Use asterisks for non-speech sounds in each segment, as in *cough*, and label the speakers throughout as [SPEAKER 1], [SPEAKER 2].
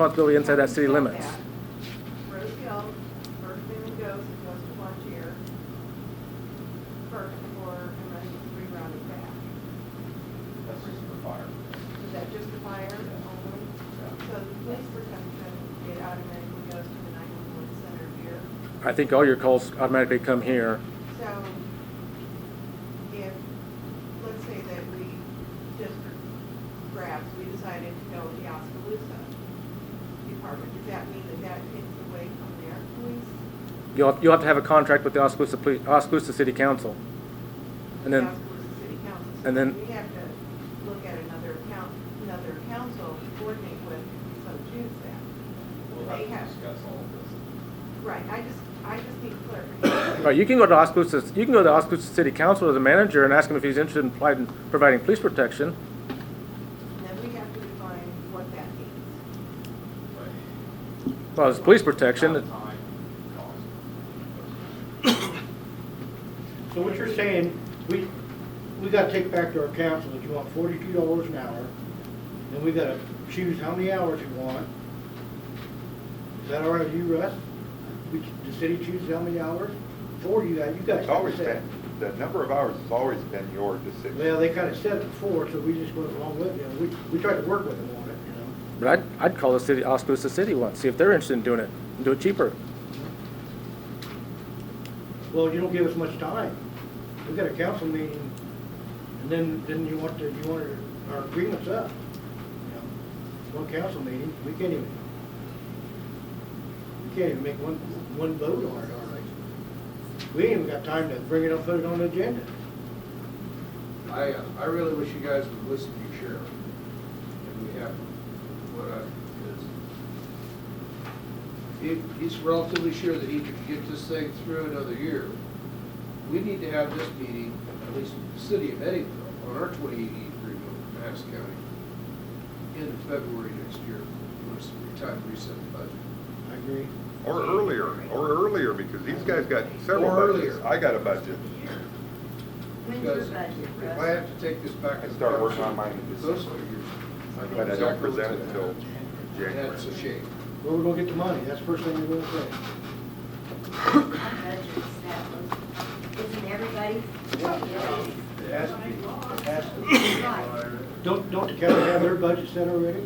[SPEAKER 1] responsibility inside that city limits.
[SPEAKER 2] Rose Hill, first thing that goes, it goes to lunch here. First for, and then three rounds back.
[SPEAKER 3] That's just for fire.
[SPEAKER 2] Is that just the fire only? So the police protection, it automatically goes to the nine-one-one center here.
[SPEAKER 1] I think all your calls automatically come here.
[SPEAKER 2] So if, let's say that we just grabs, we decided to go with the Oskaloosa department, does that mean that that takes away from their police?
[SPEAKER 1] You'll, you'll have to have a contract with the Oskaloosa, Poli- Oskaloosa City Council. And then,
[SPEAKER 2] Oskaloosa City Council. So
[SPEAKER 1] and then-
[SPEAKER 2] We have to look at another coun, another council to coordinate with, so choose that.
[SPEAKER 3] We'll
[SPEAKER 2] They
[SPEAKER 3] have
[SPEAKER 2] have-
[SPEAKER 3] to discuss all of this.
[SPEAKER 2] Right, I just, I just need clarification.
[SPEAKER 1] right, you can go to Oskaloosa, you can go to Oskaloosa City Council as a manager and ask him if he's interested in providing, providing police protection.
[SPEAKER 2] And Then we have to define what that means.
[SPEAKER 1] Well, it's police protection.
[SPEAKER 3] Time, cost.
[SPEAKER 4] So what you're saying, we, we gotta take back to our council that you want forty-two dollars an hour, and we gotta choose how many hours you want. Is that all right with you, Russ? We, the city chooses how many hours for you, guys- you guys.
[SPEAKER 5] It's always
[SPEAKER 4] said.
[SPEAKER 5] been, the number of hours has always been your decision.
[SPEAKER 4] Well, they kinda said it before, so we just went along with it, we, we tried to work with them on it, you know?
[SPEAKER 1] But I'd, I'd call the city, Oskaloosa City one, see if they're interested in doing it, and do it cheaper.
[SPEAKER 4] Well, you don't give us much time. We got a council meeting, and then, then you want to, you want our- our agreements up. you know. One council meeting, we can't even, we can't even make one, one vote on it, all right? We ain't even got time to bring it up, put it on the agenda.
[SPEAKER 6] I, uh, I really wish you guys would listen to your sheriff. And we have, what I, because he, he's relatively sure that he can get this thing through another year. We need to have this meeting, at least the city of Eddieville, on our twenty-eight E agreement with Madison County in February next year, when it's time to reset the budget.
[SPEAKER 4] I agree.
[SPEAKER 5] Or earlier, or earlier, because these guys got several
[SPEAKER 6] Or
[SPEAKER 5] budgets.
[SPEAKER 6] earlier.
[SPEAKER 5] I got a budget.
[SPEAKER 7] When's your
[SPEAKER 6] Because
[SPEAKER 7] budget,
[SPEAKER 6] if I
[SPEAKER 7] Russ?
[SPEAKER 6] have to take this back.
[SPEAKER 5] I start working on mine in
[SPEAKER 6] Those
[SPEAKER 5] December.
[SPEAKER 6] figures. I know
[SPEAKER 5] But I don't
[SPEAKER 6] exactly what's
[SPEAKER 5] present
[SPEAKER 6] in
[SPEAKER 5] it
[SPEAKER 6] there.
[SPEAKER 5] till January.
[SPEAKER 6] That's a shame.
[SPEAKER 4] Where we gonna get the money? That's the first thing we're gonna say.
[SPEAKER 7] My budget's that low. Isn't everybody?
[SPEAKER 6] It has to be, it has to be.
[SPEAKER 4] Don't, don't the county have their budget set already?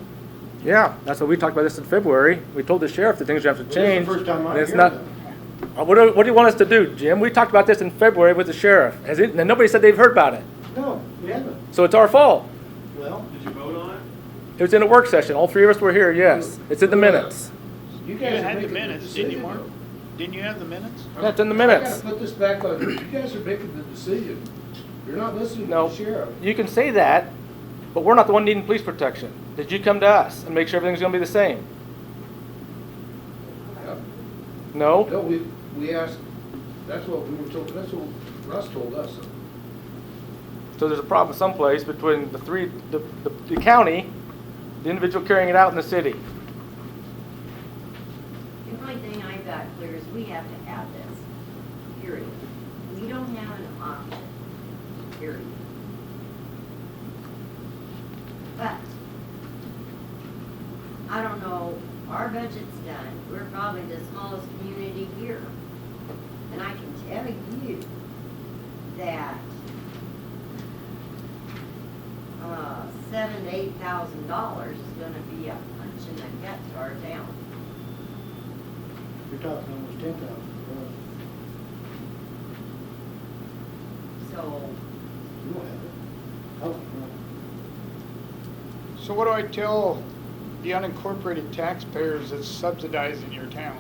[SPEAKER 1] Yeah, that's what we talked about this in February. We told the sheriff that things have to
[SPEAKER 4] This is
[SPEAKER 1] change.
[SPEAKER 4] the first time I'm
[SPEAKER 1] and it's
[SPEAKER 4] hearing
[SPEAKER 1] not-
[SPEAKER 4] that.
[SPEAKER 1] Uh, What do, what do you want us to do, Jim? We talked about this in February with the sheriff. Has it, and nobody said they've heard about it.
[SPEAKER 4] No, we haven't.
[SPEAKER 1] So it's our fault.
[SPEAKER 4] Well,
[SPEAKER 1] It was in a work session. All three of us were here, yes. It's in the minutes.
[SPEAKER 4] you
[SPEAKER 8] You
[SPEAKER 4] guys. are
[SPEAKER 8] had the
[SPEAKER 4] making
[SPEAKER 8] minutes, didn't you,
[SPEAKER 4] decision,
[SPEAKER 8] Mark?
[SPEAKER 4] though.
[SPEAKER 8] Didn't you have the minutes?
[SPEAKER 1] Yeah, it's in the
[SPEAKER 6] I gotta
[SPEAKER 1] minutes.
[SPEAKER 6] put this back on, you guys are making the decision. You're not listening to
[SPEAKER 1] No.
[SPEAKER 6] the sheriff.
[SPEAKER 1] You can say that, but we're not the one needing police protection. Did you come to us and make sure everything's gonna be the same?
[SPEAKER 6] Yeah.
[SPEAKER 1] No?
[SPEAKER 6] No, we, we asked, that's what we were told, that's what Russ told us.
[SPEAKER 1] So there's a problem someplace between the three, the, the, the county, the individual carrying it out in the city.
[SPEAKER 7] The only thing I got clear is we have to have this, period. We don't have an option, period. But, I don't know, our budget's done, we're probably the smallest community here. And I can tell you that, uh, seven to eight thousand dollars is gonna be a punch in the gut to our town.
[SPEAKER 4] You're talking almost ten thousand.
[SPEAKER 7] So,
[SPEAKER 4] You don't have it. I don't know.
[SPEAKER 8] So what do I tell the unincorporated taxpayers that's subsidizing your town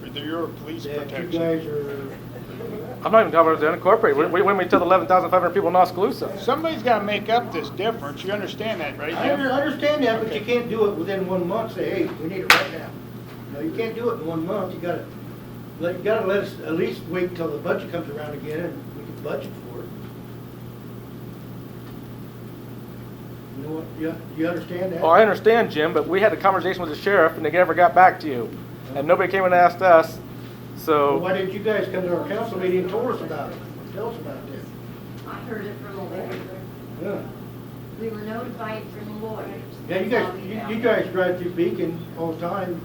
[SPEAKER 8] for their- your police
[SPEAKER 4] That you
[SPEAKER 8] protection?
[SPEAKER 4] guys are,
[SPEAKER 1] *laughs* I'm not even talking about the unincorporated. When, when we tell the eleven thousand five hundred people in Oskaloosa.
[SPEAKER 8] Somebody's gotta make up this difference, you understand that, right,
[SPEAKER 4] I under-
[SPEAKER 8] Jim?
[SPEAKER 4] understand that, but you can't do it within one month, say, hey, we need it right now. No, you can't do it in one month, you gotta, let- you gotta let us at least wait till the budget comes around again and we can budget for it. You know what, you, you understand that?
[SPEAKER 1] Oh, I understand, Jim, but we had a conversation with the sheriff and they never got back to you. And nobody came and asked us,
[SPEAKER 4] Well,
[SPEAKER 1] so,
[SPEAKER 4] Why didn't you guys come to our council meeting and tell us about it? Tell us about this.
[SPEAKER 7] I heard it from the lawyer.
[SPEAKER 4] Yeah.
[SPEAKER 7] We were notified from the lawyers.
[SPEAKER 4] Yeah, you guys, you you guys drive through Beacon all the time,